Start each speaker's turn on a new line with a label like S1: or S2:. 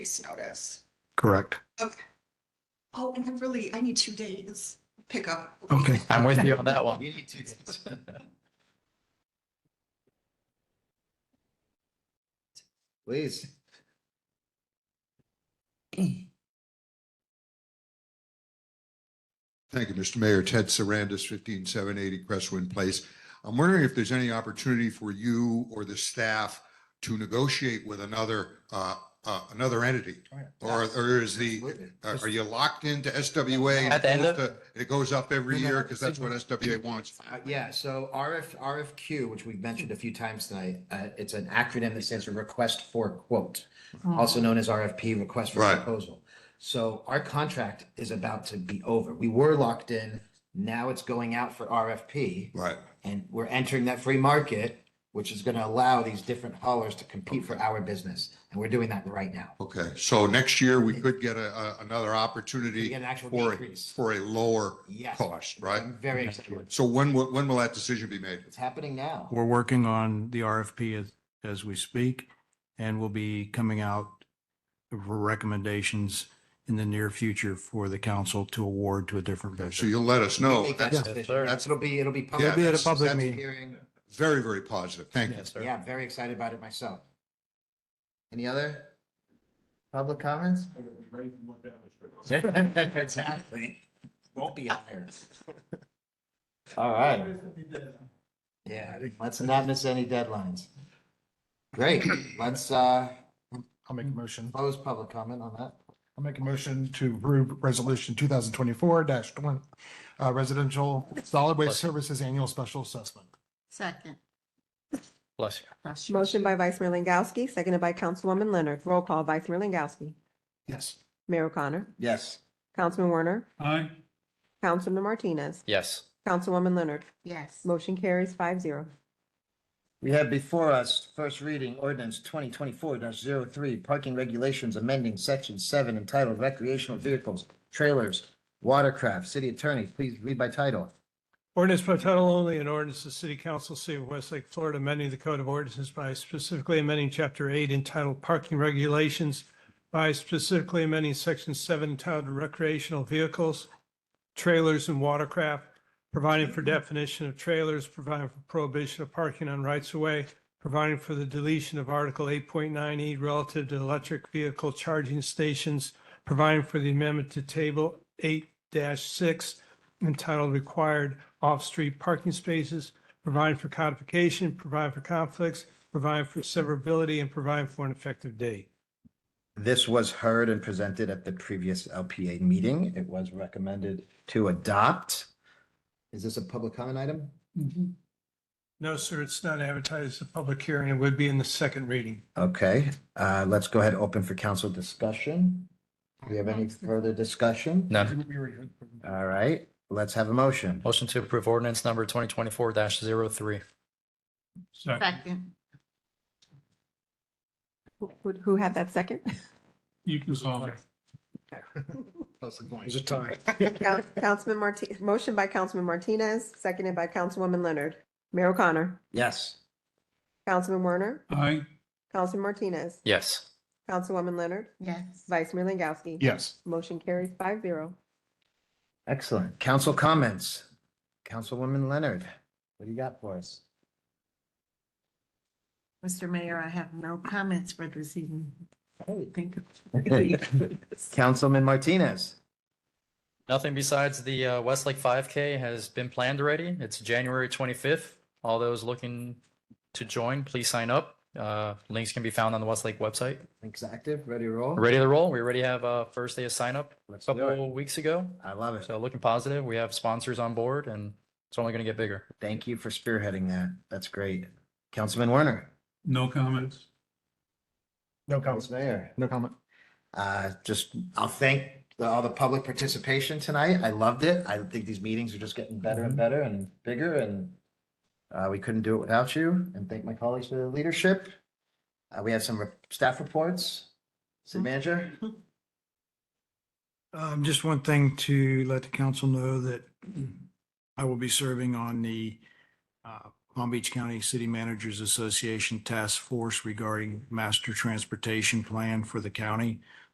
S1: least notice.
S2: Correct.
S1: Oh, and I really, I need two days pickup.
S2: Okay.
S3: I'm with you on that one. Please.
S4: Thank you, Mr. Mayor. Ted Sarandis, 15780 Crestwind Place. I'm wondering if there's any opportunity for you or the staff to negotiate with another, uh, uh, another entity? Or, or is the, uh, are are you locked into SWA? and
S3: At the end of-
S4: it goes to- It goes up every
S3: No, no,
S4: year because that's what
S3: it's-
S4: SWA wants.
S3: Uh, Yeah, so RF, RFQ, which we've mentioned a few times tonight, uh, it's an acronym that stands for Request for Quote, also known as RFP, Request for
S4: Right.
S3: Proposal. So our contract is about to be over. We were locked in, now it's going out for RFP.
S4: Right.
S3: And we're entering that free market, which is going to allow these different haulers to compete for our business. And we're doing that right now.
S4: Okay. So next year, we could get a, a- another
S3: We
S4: opportunity
S3: get an actual
S4: for, a-
S3: decrease.
S4: for a lower
S3: Yes.
S4: cost, right?
S3: I'm very excited.
S4: So when, will- when will that decision be made?
S3: It's happening now.
S2: We're working on the RFP as, as we speak and we'll be coming out for recommendations in the near future for the council to award to a different
S4: So
S2: vendor.
S4: you'll let us know.
S3: Make that
S4: That's
S3: decision.
S5: sir.
S3: That's, it'll be, it'll be. public.
S4: It'll be at a
S2: public
S3: That's
S2: meeting.
S3: hearing.
S4: very, very positive. Thank you.
S5: Yes, sir.
S3: Yeah, I'm very excited about it myself. Any other public comments? Exactly. Won't be hired. All right. Yeah, let's not miss any deadlines. Great, let's, uh,
S6: I'll make a motion.
S3: close public comment on that.
S6: I'll make a motion to approve resolution two thousand twenty-four one, uh, residential solid waste services annual special assessment.
S7: Second.
S5: Bless you.
S8: Motion by Vice Mayor Langowski, seconded by Councilwoman Leonard. Roll call, Vice Mayor Langowski.
S6: Yes.
S8: Mayor O'Connor.
S3: Yes.
S8: Councilman Werner.
S5: Aye.
S8: Councilman Martinez.
S5: Yes.
S8: Councilwoman Leonard.
S7: Yes.
S8: Motion carries five zero.
S3: We have before us first reading ordinance twenty twenty-four 3 parking regulations amending section seven entitled recreational vehicles, trailers, watercraft. City attorney, please read by title.
S9: Ordinance by title only, an ordinance of the City Council, City of Westlake, Florida, amending the Code of Ordinances by specifically amending Chapter 8 entitled Parking Regulations by specifically amending Section 7 entitled Recreational Vehicles, Trailers and Watercraft, providing for definition of trailers, providing for prohibition of parking on rights-of-way, providing for the deletion of Article 8.9E E relative to electric vehicle charging stations, providing for the amendment to Table 8-6 entitled Required Off-Street Parking Spaces, providing for codification, providing for conflicts, providing for severability, and providing for an effective date.
S3: This was heard and presented at the previous LPA meeting. It was recommended to adopt. Is this a public comment item?
S9: No, sir, it's not advertised as a public hearing. It would be in the second reading.
S3: Okay, uh, let's go ahead and open for council discussion. Do we have any further discussion?
S5: None.
S3: All right, let's have a motion.
S5: Motion to approve ordinance number twenty twenty-four 3
S7: Second.
S8: Who- Who, who had that second?
S9: You can solve it.
S6: Is it time?
S8: Coun- Councilman Marti, motion by Councilman Martinez, seconded by Councilwoman Leonard. Mayor O'Connor.
S3: Yes.
S8: Councilman Werner.
S9: Aye.
S8: Councilman Martinez.
S5: Yes.
S8: Councilwoman Leonard.
S7: Yes.
S8: Vice Mayor Langowski.
S6: Yes.
S8: Motion carries five zero.
S3: Excellent. Council comments. Councilwoman Leonard, what do you got for us?
S7: Mr. Mayor, I have no comments for this evening. Thank you.
S3: Councilman Martinez.
S5: Nothing besides the uh, Westlake five K has been planned already. It's January twenty-fifth. All those looking to join, please sign up. Uh, links can be found on the Westlake website.
S3: Links active, ready to roll?
S5: Ready to roll? We already have uh first day of sign up
S3: Let's
S5: a
S3: do it.
S5: couple weeks ago.
S3: I love it.
S5: So looking positive. We have sponsors on board and it's only going to get bigger.
S3: Thank you for spearheading that. That's great. Councilman Werner.
S9: No comments.
S6: No
S3: Council
S6: comment.
S3: Mayor.
S6: No comment.
S3: Uh, just, I'll thank the- all the public participation tonight. I loved it. I think these meetings are just getting better
S6: Mm-hmm.
S3: and better and bigger and uh, we couldn't do it without you and thank my colleagues for their leadership. Uh, we have some re- staff reports.
S6: Mm-hmm.
S3: City manager?
S2: Um, just one thing to let the council know that I will be serving on the uh, Palm Beach County City Managers Association Task Force regarding master transportation plan for the county